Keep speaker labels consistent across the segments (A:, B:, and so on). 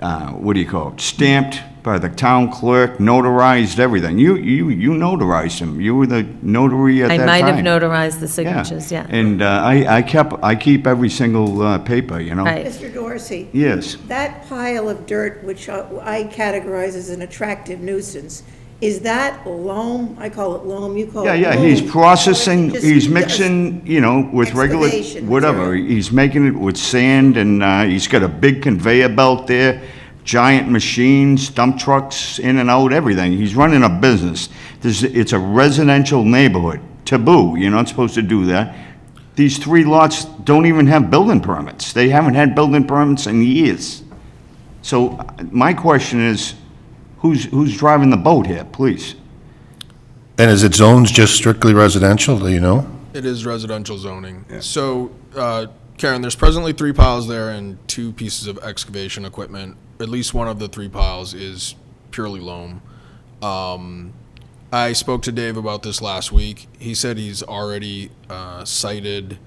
A: uh, what do you call it, stamped by the town clerk, notarized, everything. You, you, you notarized them. You were the notary at that
B: I
A: time.
B: might have notarized the
A: Yeah.
B: signatures, yeah.
A: And uh, I, I kept, I keep every single uh, paper, you know?
B: Right.
C: Mr. Dorsey,
A: Yes.
C: that pile of dirt, which I I categorize as an attractive nuisance, is that loam? I call it loam, you call it
A: Yeah,
C: loam.
A: yeah, he's
C: Or is it
A: processing,
C: just
A: he's
C: dust?
A: mixing, you know, with regular,
C: Excavation
A: whatever.
C: material.
A: He's making it with sand, and uh, he's got a big conveyor belt there, giant machines, dump trucks, in and out, everything. He's running a business. This, it's a residential neighborhood, taboo, you're not supposed to do that. These three lots don't even have building permits. They haven't had building permits in years. So uh, my question is, who's, who's driving the boat here, please?
D: And is it zones just strictly residential, do you know?
E: It is residential zoning. So, uh, Karen, there's presently three piles there and two pieces of excavation equipment. At least one of the three piles is purely loam. Um, I spoke to Dave about this last week. He said he's already uh, cited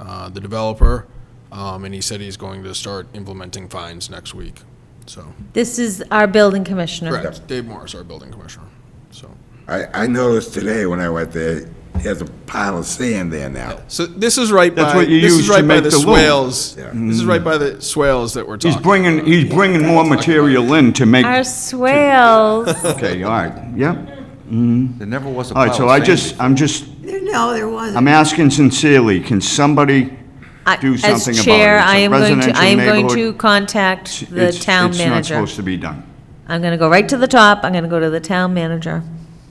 E: uh, the developer, um, and he said he's going to start implementing fines next week. So,
B: This is our building commissioner.
E: correct. Dave Morris, our building commissioner. So.
F: I, I noticed today when I went there, there's a pile of sand there now.
E: So this is right
A: That's
E: by
A: what you
E: this
A: use
E: is
A: to
E: right by
A: make
E: the,
A: the loom.
E: swales.
F: Yeah.
E: This is right by the swales that we're talking.
A: He's bringing,
E: about.
A: he's bringing more material in to make,
B: Our swales,
A: okay, all right, yeah. Mm-hmm.
G: There never was a
A: All right,
G: pile of
A: so I
G: sand
A: just, I'm just,
C: There- No, there wasn't.
A: I'm asking sincerely, can somebody
B: I-
A: do
B: as
A: something about it?
B: chair,
A: It's a
B: I am going to, I
A: residential
B: am going to
A: neighborhood.
B: contact the
A: It's-
B: town
A: It's not
B: manager.
A: supposed to be done.
B: I'm going to go right to the top, I'm going to go to the town manager.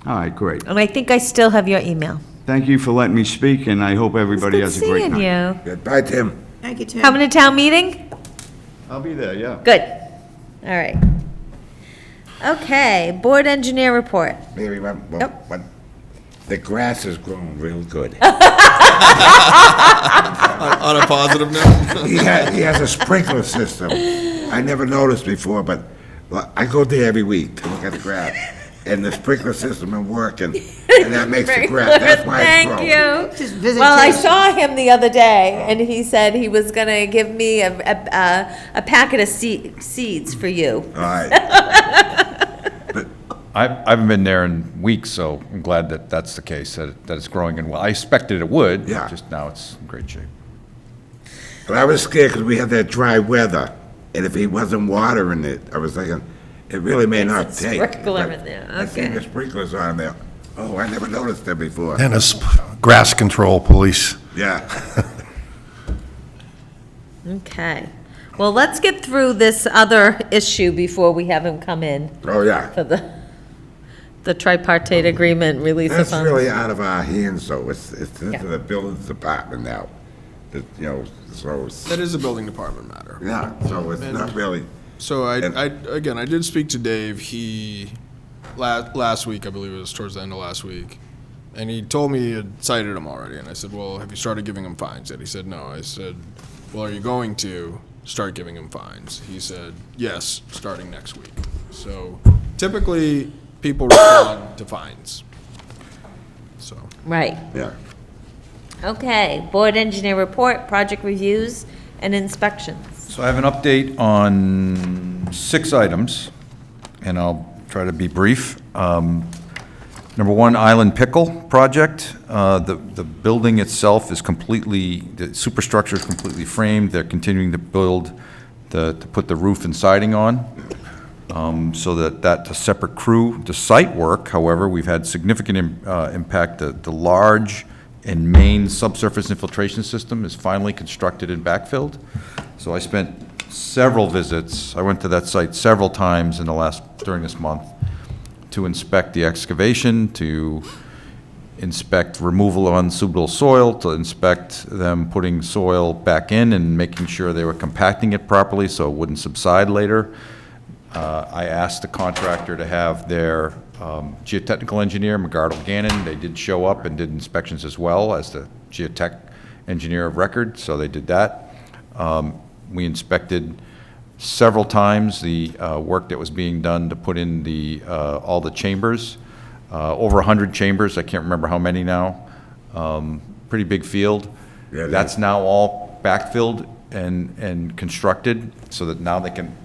A: All right, great.
B: And I think I still have your email.
A: Thank you for letting me speak, and I hope everybody
B: Good
A: has a great
B: seeing
A: night.
B: you.
F: Goodbye, Tim.
C: Thank you, Tim.
B: Coming to town meeting?
A: I'll be there, yeah.
B: Good. All right. Okay, board engineer report.
F: Maybe one, one-
B: Yep.
F: one- the grass has grown real good.
E: on a positive note.
F: He has, he has a sprinkler system. I never noticed before, but well, I go there every week to look at the grass. And the sprinkler system is working, and that makes the grass, that's why it's
B: Thank
F: growing.
B: you.
C: Just visitation.
B: Well, I saw him the other day, and he said he was gonna give me a, a- a, a packet of se- seeds for you.
F: All right,
G: I I haven't been there in weeks, so I'm glad that that's the case, that it- that it's growing and well. I expected it would,
F: Yeah.
G: just now it's in great shape.
F: but I was scared because we had that dry weather, and if he wasn't watering it, I was thinking, it really may not
B: a
F: take.
B: sprinkler
F: but
B: in there,
F: I seen
B: okay.
F: the sprinklers on there. Oh, I never noticed them before.
D: And it's grass control police.
F: Yeah.
B: Okay. Well, let's get through this other issue before we have him come in
F: Oh, yeah.
B: for the, the tripartite agreement release of
F: That's
B: funds.
F: really out of our hands, though. It's, it's into
B: Yeah.
F: the buildings department now. It, you know, so, it's-
E: that is a building department matter.
F: yeah, so it's not really,
E: So I,
F: And-
E: I again, I did speak to Dave. He last last week, I believe it was towards the end of last week, and he told me he had cited him already. And I said, "Well, have you started giving him fines?" yet?" he said, "No." I said, "Well, are you going to start giving him fines?" He said, "Yes, starting next week." So typically, people respond to fines. So.
B: Right.
F: yeah.
B: Okay, board engineer report, project reviews and inspections.
G: So I have an update on six items, and I'll try to be brief. Um, Number one, Island Pickle Project. Uh, The the building itself is completely, the superstructure is completely framed. They're continuing to build, the- to put the roof and siding on um, so that that's a separate crew. The site work, however, we've had significant im- uh, impact. The, the large and main subsurface infiltration system is finally constructed and backfilled. So I spent several visits, I went to that site several times in the last, during this month, to inspect the excavation, to inspect removal of unsuitable soil, to inspect them putting soil back in and making sure they were compacting it properly so it wouldn't subside later. Uh, I asked the contractor to have their um, geotechnical engineer, McGardle Gannon, they did show up and did inspections as well as the geotech engineer of record, so they did that. Um, We inspected several times the uh, work that was being done to put in the, uh, all the chambers, uh, over 100 chambers, I can't remember how many now. Um, Pretty big field.
F: Yeah, it is.
G: That's now all backfilled and, and constructed, so that now they can